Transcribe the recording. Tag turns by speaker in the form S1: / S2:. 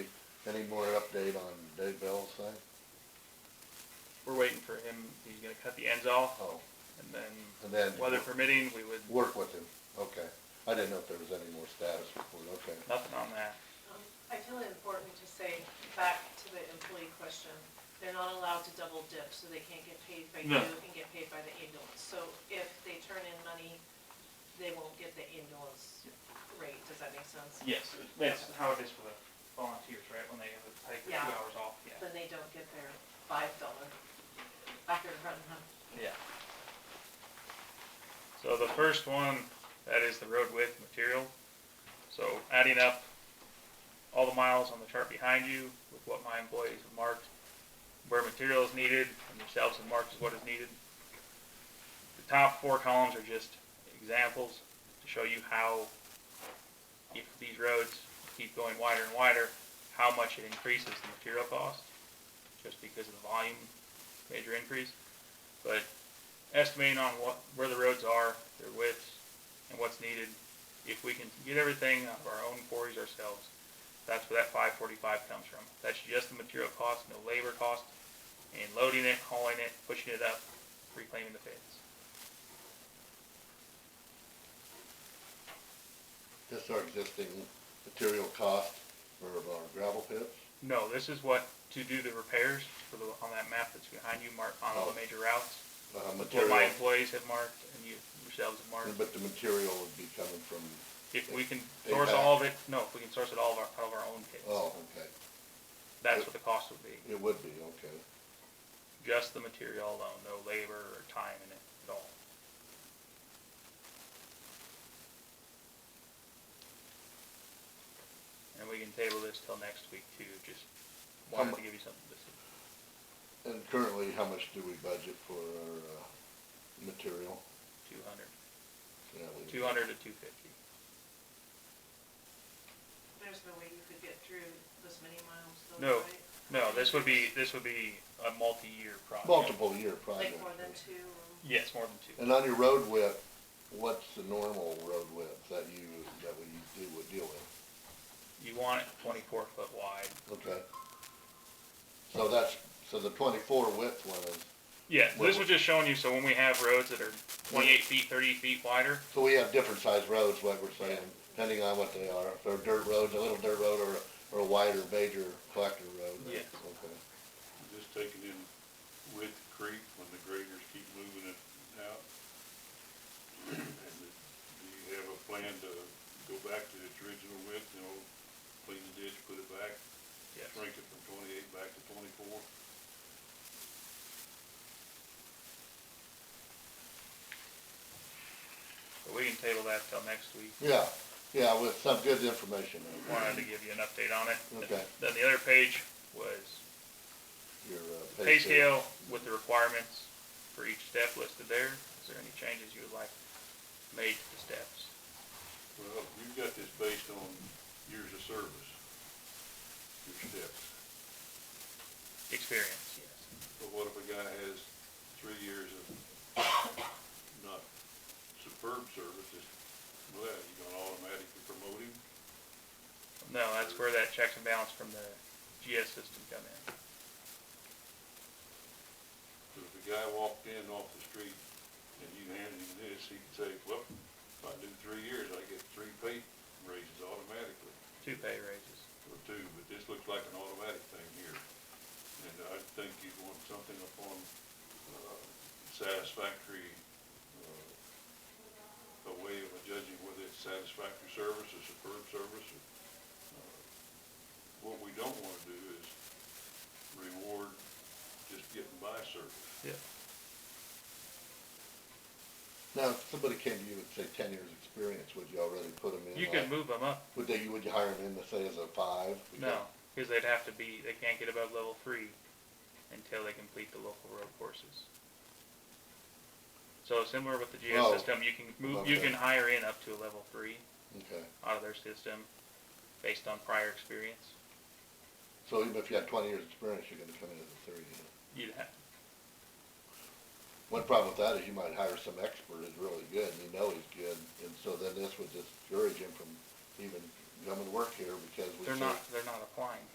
S1: Any more update on Dave Bell's thing?
S2: We're waiting for him, he's gonna cut the ends off,
S1: Oh,
S2: and then,
S1: and then
S2: weather permitting, we would,
S1: work with him, okay. I didn't know if there was any more status report, okay.
S2: nothing on that.
S3: Um, I feel it important to say, back to the employee question, they're not allowed to double dip, so they can't get paid by you
S2: No.
S3: and get paid by the ambulance. So if they turn in money, they won't get the ambulance rate, does that make sense?
S2: Yes, that's how it is for the volunteers, right, when they have to take the
S3: Yeah.
S2: two hours off, yeah.
S3: Then they don't get their five dollar back in front of them.
S2: Yeah. So the first one, that is the road width material. So adding up all the miles on the chart behind you with what my employees have marked, where material is needed, and yourselves have marked as what is needed. The top four columns are just examples to show you how, if these roads keep going wider and wider, how much it increases the material cost, just because of the volume major increase but estimating on what, where the roads are, their widths, and what's needed. If we can get everything out of our own quarries ourselves, that's where that five forty-five comes from. That's just the material cost, no labor cost, and loading it, hauling it, pushing it up, reclaiming the pits.
S1: Just our existing material cost for our gravel pits?
S2: No, this is what, to do the repairs for the, on that map that's behind you, mark on all the major routes.
S1: Uh,
S2: What my
S1: Oh. material,
S2: employees have marked and you yourselves have marked.
S1: but the material would be coming from,
S2: If we can
S1: They
S2: source
S1: back.
S2: all of it, no, if we can source it all of our, out of our own pits,
S1: oh, okay,
S2: that's what the cost would be.
S1: it would be, okay.
S2: just the material alone, no labor or time in it at all. And we can table this till next week too, just wanted to give you something to see.
S1: And currently, how much do we budget for our, uh, material?
S2: Two hundred.
S1: Yeah, we-
S2: Two hundred to two fifty.
S3: There's no way you could get through this many miles though,
S2: No.
S3: right?
S2: No, this would be, this would be a multi-year project.
S1: Multiple year
S3: Like
S1: project.
S3: more than two, or-
S2: Yes, more than two.
S1: And on your road width, what's the normal road width that you, that we do, would deal with?
S2: You want it twenty-four foot wide.
S1: Okay. So that's, so the twenty-four width one is,
S2: Yeah, this was just showing you, so when we have roads that are twenty-eight feet, thirty feet wider,
S1: so we have different sized roads, like we're saying, depending on what they are. If they're dirt roads, a little dirt road or, or a wider major collector road.
S2: Yes.
S1: Okay.
S4: Just taking in with the creek when the graders keep moving it out. And it- do you have a plan to go back to its original width, you know, clean the ditch, put it back,
S2: yes.
S4: shrink it from twenty-eight back to twenty-four?
S2: But we can table that till next week.
S1: Yeah, yeah, with some good information.
S2: wanted to give you an update on it.
S1: Okay.
S2: Then the other page was
S1: Your, uh.
S2: pay scale with the requirements for each step listed there. Is there any changes you would like made to the steps?
S4: Well, you've got this based on years of service, your steps.
S2: Experience, yes.
S4: But what if a guy has three years of not superb service, just, well, you gonna automatically promote him?
S2: No, that's where that checks and balance from the GS system come in.
S4: Cause if a guy walked in off the street and you handed him this, he could say, well, if I do three years, I get three pay raises automatically,
S2: Two pay raises.
S4: or two, but this looks like an automatic thing here. And I think you'd want something upon, uh, satisfactory, uh, a way of judging whether it's satisfactory service or superb service. or, uh, What we don't wanna do is reward just getting by service.
S2: Yeah.
S1: Now, if somebody came to you and say ten years experience, would you already put them in?
S2: You
S1: like-
S2: can move them up.
S1: Would they, would you hire them in to say as a five?
S2: No, because they'd have to be, they can't get above level three until they complete the local road courses. So similar with the GS
S1: Oh,
S2: system, you can move,
S1: above
S2: you
S1: that.
S2: can hire in up to a level three.
S1: Okay,
S2: out of their system based on prior experience.
S1: so even if you had twenty years experience, you're gonna come in as a thirty.
S2: You'd have,
S1: One problem with that is you might hire some expert who's really good, and you know he's good, and so then this would discourage him from even coming to work here because we.
S2: they're
S1: say-
S2: not, they're not applying